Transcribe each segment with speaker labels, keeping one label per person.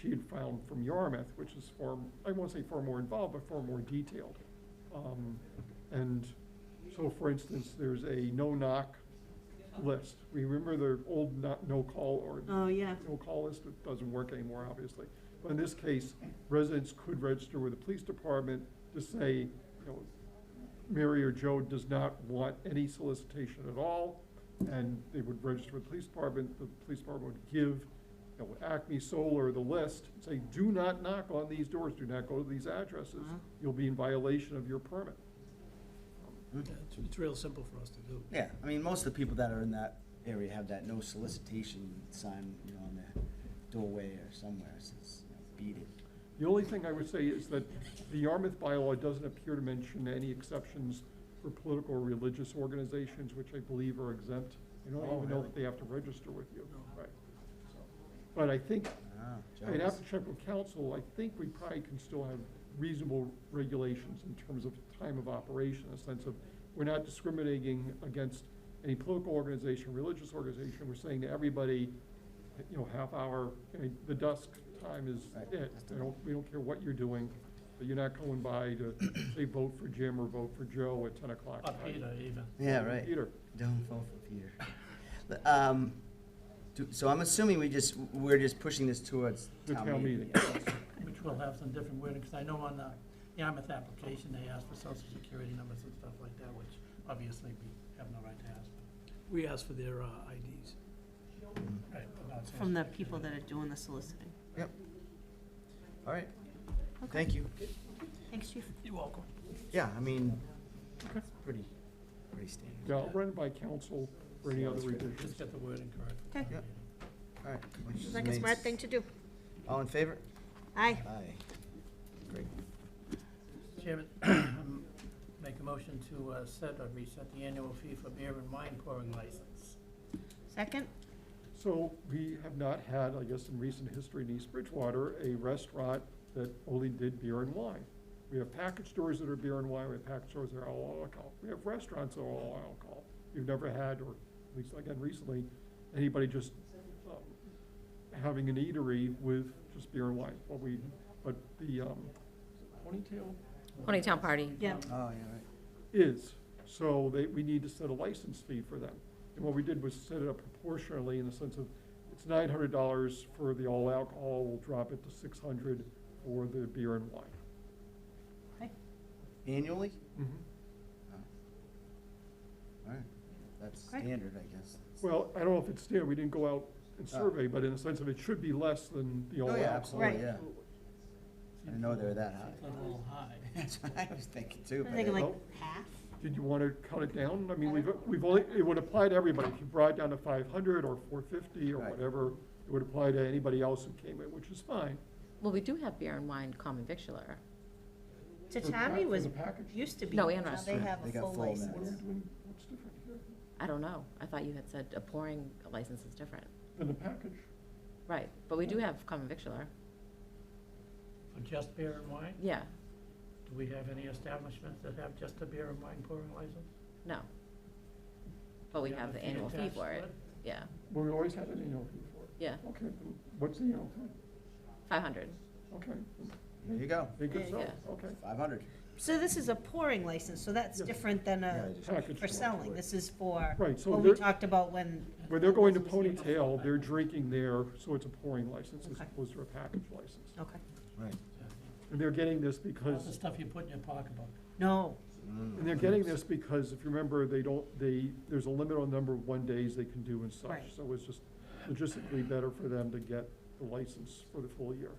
Speaker 1: she had found from Yarmouth, which is far, I won't say far more involved, but far more detailed. Um, And so, for instance, there's a no-knock list. We remember the old no- no-call or
Speaker 2: Oh, yeah.
Speaker 1: no-call list, it doesn't work anymore, obviously. But in this case, residents could register with the police department to say, you know, Mary or Joe does not want any solicitation at all, and they would register with the police department, the police department would give, you know, Acme Solar the list, say, do not knock on these doors, do not go to these addresses,
Speaker 2: Wow.
Speaker 1: you'll be in violation of your permit.
Speaker 3: Yeah, It's, it's real simple for us to do.
Speaker 4: Yeah, I mean, most of the people that are in that area have that no solicitation sign, you know, on their doorway or somewhere, it says, you know, beat it.
Speaker 1: The only thing I would say is that the Yarmouth bylaw doesn't appear to mention any exceptions for political or religious organizations, which I believe are exempt. I don't
Speaker 4: Oh,
Speaker 1: even know
Speaker 4: really?
Speaker 1: if they have to register with you,
Speaker 3: No.
Speaker 1: right? So, But I think,
Speaker 4: Ah,
Speaker 1: I'd have
Speaker 4: jealous.
Speaker 1: to check with council, I think we probably can still have reasonable regulations in terms of time of operation, a sense of, we're not discriminating against any political organization, religious organization, we're saying to everybody, you know, half hour, I mean, the dusk time is
Speaker 4: Right.
Speaker 1: it, I don't, we don't care what you're doing, but you're not going by to say vote for Jim or vote for Joe at ten o'clock.
Speaker 3: Or Peter even.
Speaker 4: Yeah, right.
Speaker 1: Peter.
Speaker 4: Don't fall for Peter. But, Um, do- so I'm assuming we just, we're just pushing this towards
Speaker 1: The
Speaker 4: town
Speaker 1: town
Speaker 4: meeting.
Speaker 3: Which will have some different wording, because I know on the Yarmouth application, they asked for social security numbers and stuff like that, which obviously we have no right to ask. We asked for their uh, IDs. Right, but not social
Speaker 2: From the
Speaker 3: security.
Speaker 2: people that are doing the soliciting.
Speaker 4: Yep. All right, thank you.
Speaker 2: Thanks, chief.
Speaker 3: You're welcome.
Speaker 4: Yeah, I mean, it's pretty, pretty standard.
Speaker 1: Yeah, I'll run it by council for any other
Speaker 3: Just
Speaker 1: revisions.
Speaker 3: get the wording correct.
Speaker 2: Okay.
Speaker 4: Yep. All right. motion
Speaker 2: Like a
Speaker 4: made.
Speaker 2: smart thing to do.
Speaker 4: All in favor?
Speaker 2: Aye.
Speaker 4: Aye. Great.
Speaker 3: Chairman, um, make a motion to uh, set or reset the annual fee for beer and wine pouring license.
Speaker 2: Second?
Speaker 1: So we have not had, I guess, in recent history in East Bridgewater, a restaurant that only did beer and wine. We have package stores that are beer and wine, we have package stores that are all alcohol, we have restaurants that are all alcohol. We've never had, or at least again recently, anybody just um, having an eatery with just beer and wine. But we, but the um, ponytail
Speaker 5: Ponytown party.
Speaker 2: Yeah.
Speaker 4: Oh, yeah, right.
Speaker 1: is, so they, we need to set a license fee for them. And what we did was set it up proportionally in the sense of, it's nine hundred dollars for the all alcohol, we'll drop it to six hundred for the beer and wine.
Speaker 4: Annually?
Speaker 1: Mhm.
Speaker 4: All right, that's
Speaker 2: Great.
Speaker 4: standard, I guess.
Speaker 1: Well, I don't know if it's there, we didn't go out and
Speaker 4: Ah.
Speaker 1: survey, but in the sense of it should be less than the all
Speaker 4: Oh,
Speaker 1: alcohol.
Speaker 4: yeah, absolutely,
Speaker 2: Right.
Speaker 4: yeah. I didn't know they were that
Speaker 3: Seems
Speaker 4: high.
Speaker 3: a little high.
Speaker 4: That's what I was thinking too.
Speaker 2: I'm
Speaker 4: but-
Speaker 2: thinking like
Speaker 1: Well-
Speaker 2: half.
Speaker 1: Did you wanna cut it down? I mean, we've, we've only, it would apply to everybody, if you brought it down to five hundred or four fifty or
Speaker 4: Right.
Speaker 1: whatever, it would apply to anybody else who came in, which is fine.
Speaker 5: Well, we do have beer and wine common victular.
Speaker 2: Tatami was,
Speaker 1: For the package.
Speaker 2: used to be.
Speaker 5: No, and
Speaker 2: now
Speaker 5: restaurant.
Speaker 2: They have
Speaker 4: They
Speaker 2: a
Speaker 4: got
Speaker 2: full
Speaker 4: full now.
Speaker 1: What are we
Speaker 2: license.
Speaker 1: doing, what's different here
Speaker 5: I don't know. I thought you had said a pouring license is different.
Speaker 1: than the package?
Speaker 5: Right, but we do have common victular.
Speaker 3: For just beer and wine?
Speaker 5: Yeah,
Speaker 3: Do we have any establishments that have just a beer and wine pouring license?
Speaker 5: no. But we
Speaker 3: Yeah,
Speaker 5: have the
Speaker 3: if you
Speaker 5: annual fee
Speaker 3: attach
Speaker 5: for
Speaker 3: to
Speaker 5: it. Yeah,
Speaker 1: Well, we always had an annual fee for it.
Speaker 5: yeah,
Speaker 1: Okay, then what's the annual fee?
Speaker 5: five hundred.
Speaker 1: Okay,
Speaker 4: There you go,
Speaker 1: make it so,
Speaker 5: Yeah.
Speaker 1: okay.
Speaker 4: five hundred.
Speaker 2: So this is a pouring license, so that's
Speaker 1: Yeah.
Speaker 2: different than a,
Speaker 1: Package
Speaker 2: for
Speaker 1: store.
Speaker 2: selling. This is for,
Speaker 1: Right, so
Speaker 2: what we
Speaker 1: they're,
Speaker 2: talked about when,
Speaker 1: when they're going to Ponytail, they're drinking there, so it's a pouring license as
Speaker 2: Okay.
Speaker 1: opposed to a package license.
Speaker 2: okay.
Speaker 4: Right.
Speaker 1: And they're getting this
Speaker 3: That's the
Speaker 1: because,
Speaker 3: stuff you put in your pocketbook.
Speaker 2: No,
Speaker 4: Mm.
Speaker 1: and they're getting this because if you remember, they don't, they, there's a limit on number of one days they can do and such.
Speaker 2: Right.
Speaker 1: So it's just logistically better for them to get the license for the full year.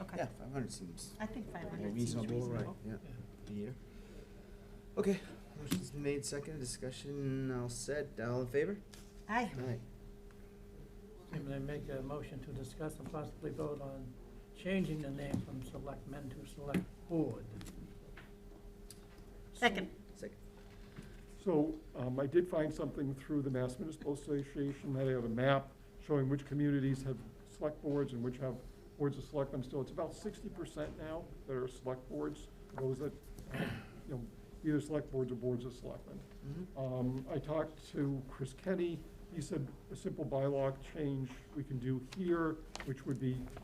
Speaker 2: okay.
Speaker 4: Yeah, five hundred seems
Speaker 2: I think five
Speaker 4: more
Speaker 2: hundred seems
Speaker 4: reasonable, right,
Speaker 2: reasonable.
Speaker 4: yeah. Beer. Okay, motion's been made, second, discussion all set, all in favor?
Speaker 2: Aye.
Speaker 4: Aye.
Speaker 3: I'm gonna make a motion to discuss and possibly vote on changing the name from Select Men to Select Board.
Speaker 2: Second.
Speaker 4: Second.
Speaker 1: So um, I did find something through the Mass Municipal Association, that I have a map showing which communities have select boards and which have boards of selectmen still. It's about sixty percent now that are select boards, those that, have, you know, either select boards or boards of selectmen.
Speaker 4: Mhm.
Speaker 1: Um, I talked to Chris Kenny, he said a simple bylaw change we can do here, which would be